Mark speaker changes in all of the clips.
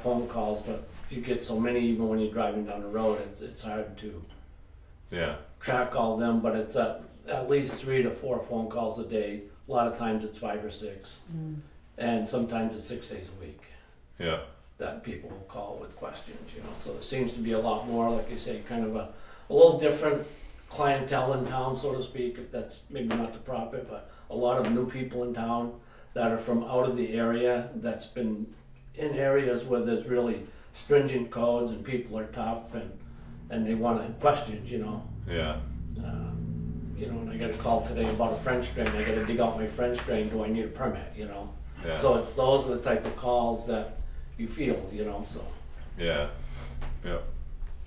Speaker 1: phone calls, but you get so many even when you're driving down the road, it's, it's hard to
Speaker 2: Yeah,
Speaker 1: track all them, but it's at, at least three to four phone calls a day. A lot of times it's five or six, and sometimes it's six days a week
Speaker 2: yeah,
Speaker 1: that people will call with questions, you know. So it seems to be a lot more, like you say, kind of a, a little different clientele in town, so to speak, if that's maybe not the proper, but a lot of new people in town that are from out of the area that's been in areas where there's really stringent codes and people are tough and and they want to questions, you know.
Speaker 2: yeah,
Speaker 1: Uh, you know, and I got a call today about a French drain. I got to dig out my French drain. Do I need a permit? You know.
Speaker 2: yeah,
Speaker 1: So it's those are the type of calls that you feel, you know, so.
Speaker 2: yeah, yeah,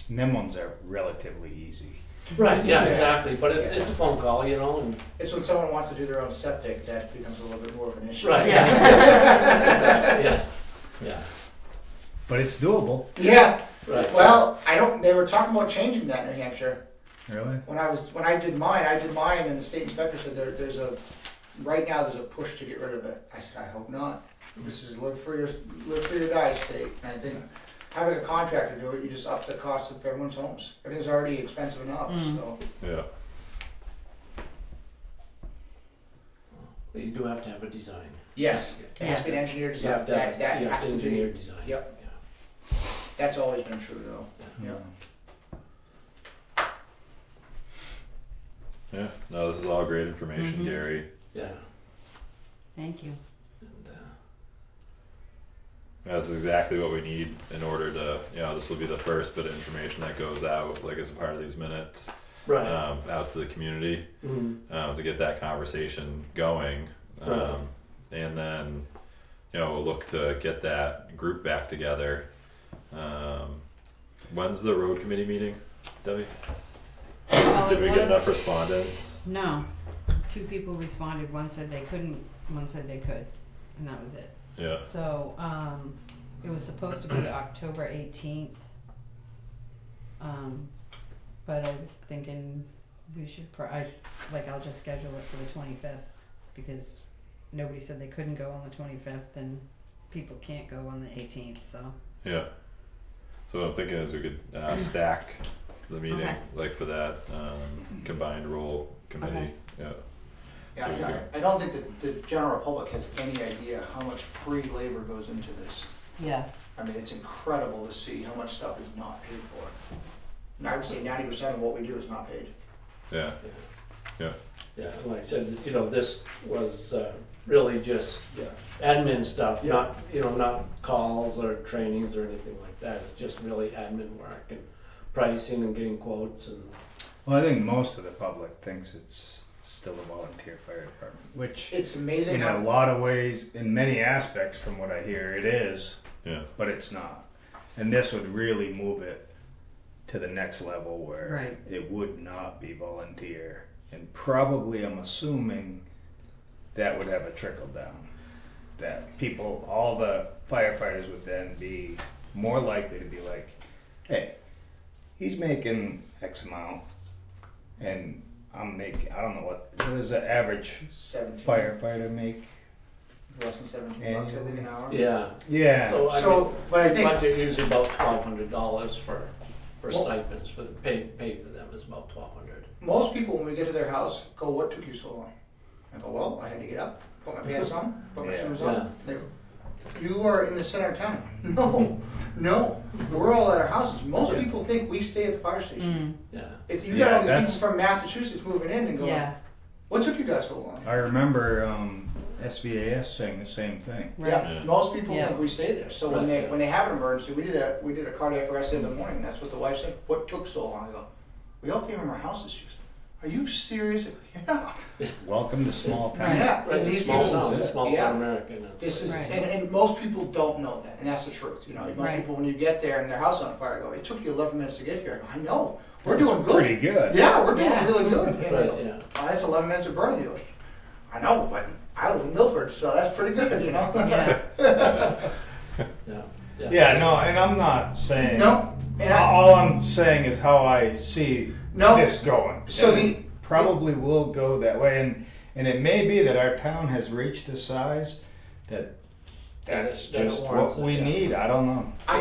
Speaker 3: And them ones are relatively easy.
Speaker 1: Right, yeah,
Speaker 3: Yeah.
Speaker 1: exactly, but it's,
Speaker 4: Yeah.
Speaker 1: it's a phone call, you know, and,
Speaker 4: It's when someone wants to do their own septic that becomes a little bit more of an issue.
Speaker 1: right.
Speaker 5: Yeah.
Speaker 1: Exactly, Yeah, yeah,
Speaker 3: But it's doable.
Speaker 4: Yeah.
Speaker 1: right.
Speaker 4: Well, I don't. They were talking about changing that in New Hampshire.
Speaker 3: Really?
Speaker 4: When I was when I did mine, I did mine, and the state inspector said there, there's a right now there's a push to get rid of it. I said I hope not. This is live for your live for your die state, and I think having a contractor do it, you just up the cost of everyone's homes. Everything's already expensive enough. So
Speaker 2: yeah,
Speaker 1: But You do have to have a design.
Speaker 4: yes, it has to be an engineer
Speaker 1: You
Speaker 4: design.
Speaker 1: have to
Speaker 4: That,
Speaker 1: have, you
Speaker 4: that
Speaker 1: have
Speaker 4: has
Speaker 1: to
Speaker 4: to
Speaker 1: engineer
Speaker 4: be.
Speaker 1: design.
Speaker 4: Yep.
Speaker 1: yeah.
Speaker 4: That's always been true though. Yeah.
Speaker 2: yeah. No, this is all great information,
Speaker 5: Mhm.
Speaker 2: Gary.
Speaker 1: Yeah,
Speaker 5: Thank you.
Speaker 1: and, uh,
Speaker 2: That's exactly what we need in order to, you know, this will be the first bit of information that goes out, like as a part of these minutes,
Speaker 1: right,
Speaker 2: um, out to the community,
Speaker 1: mm,
Speaker 2: um, to get that conversation going. Um, and then, you know, we'll look to get that group back together. Um, when's the road committee meeting, Debbie?
Speaker 5: Well,
Speaker 2: Did we
Speaker 5: Oh, it
Speaker 2: get enough
Speaker 5: was,
Speaker 2: respondents?
Speaker 5: no, two people responded, one said they couldn't, one said they could, and that was it.
Speaker 2: Yeah,
Speaker 5: So, um, it was supposed to be October eighteenth. Um, but I was thinking we should, pro- I, like, I'll just schedule it for the twenty-fifth, because nobody said they couldn't go on the twenty-fifth, and people can't go on the eighteenth, so.
Speaker 2: yeah. So what I'm thinking is we could uh, stack the meeting,
Speaker 5: Okay.
Speaker 2: like for that um, combined role committee. Yeah,
Speaker 4: Yeah,
Speaker 2: There you
Speaker 4: I- I, I don't think that the general public has any idea how much free labor goes into this.
Speaker 5: Yeah.
Speaker 4: I mean, it's incredible to see how much stuff is not paid for. And I would say ninety percent of what we do is not paid.
Speaker 2: yeah,
Speaker 1: yeah, and like I said, you know, this was, uh, really just admin stuff, not, you know, not calls or trainings or anything like that. It's just really admin work and pricing and getting quotes and,
Speaker 3: Well, I think most of the public thinks it's still a volunteer fire department, which
Speaker 4: It's amazing
Speaker 3: in a
Speaker 4: how,
Speaker 3: lot of ways, in many aspects, from what I hear, it is,
Speaker 2: yeah,
Speaker 3: but it's not. And this would really move it to the next level where
Speaker 5: Right.
Speaker 3: it would not be volunteer. And probably, I'm assuming, that would have a trickle down. That people, all the firefighters would then be more likely to be like, hey, he's making X amount, and I'm making, I don't know what, what does the average
Speaker 4: seventeen,
Speaker 3: firefighter make?
Speaker 4: less than seventeen bucks, I think, an hour.
Speaker 1: yeah.
Speaker 3: Yeah.
Speaker 1: So, I mean,
Speaker 4: So, but I think,
Speaker 1: budget usually about twelve hundred dollars for, for
Speaker 4: Well-
Speaker 1: stipends, for the pay, pay for them is about twelve hundred.
Speaker 4: most people, when we get to their house, go, what took you so long? I go, well, I had to get up, put my pants on, put my
Speaker 3: Yeah.
Speaker 4: shoes
Speaker 1: Yeah.
Speaker 4: on. They go, you are in the center of town. No, no, we're all at our houses. Most people think we stay at the fire station.
Speaker 5: Mm,
Speaker 1: Yeah,
Speaker 4: If you
Speaker 3: Yeah,
Speaker 4: got all these
Speaker 3: that's-
Speaker 4: people from Massachusetts moving in and going,
Speaker 5: yeah,
Speaker 4: what took you guys so long?
Speaker 3: I remember um, SVAS saying the same thing.
Speaker 5: right,
Speaker 4: Yeah,
Speaker 2: Yeah.
Speaker 4: most people
Speaker 5: Yeah.
Speaker 4: think we stay there. So when they when they have an emergency, we did a we did a cardiac arrest in the morning. That's what the wife said. What took so long? I go, we all came from our houses. She goes, are you serious? I go, Yeah,
Speaker 3: Welcome to small town.
Speaker 5: Right.
Speaker 4: yeah.
Speaker 1: Right,
Speaker 4: And these
Speaker 1: small
Speaker 4: people,
Speaker 1: town, small
Speaker 4: yeah.
Speaker 1: town American. that's
Speaker 4: This is
Speaker 1: right.
Speaker 5: Right.
Speaker 4: and, and most people don't know that, and that's the truth. You know, most
Speaker 5: Right.
Speaker 4: people when you get there and their house on fire, go, it took you 11 minutes to get here. I go, I know. We're
Speaker 3: That's
Speaker 4: doing good.
Speaker 3: Pretty good.
Speaker 4: Yeah, we're doing
Speaker 5: Yeah.
Speaker 4: really good. And they
Speaker 1: Right,
Speaker 4: go,
Speaker 1: yeah.
Speaker 4: "Oh, that's 11 minutes of burning you. I know, but I was in Milford, so that's pretty good. You know.
Speaker 5: yeah,
Speaker 1: Yeah,
Speaker 3: Yeah, no, and I'm not saying.
Speaker 4: No, and I-
Speaker 3: all I'm saying is how I see
Speaker 4: No.
Speaker 3: this going.
Speaker 4: So
Speaker 3: And
Speaker 4: the-
Speaker 3: probably will go that way, and and it may be that our town has reached a size that
Speaker 1: That
Speaker 3: that's
Speaker 1: it- that it
Speaker 3: just
Speaker 1: warrants
Speaker 3: what
Speaker 1: it,
Speaker 3: we
Speaker 1: yeah.
Speaker 3: need. I don't know.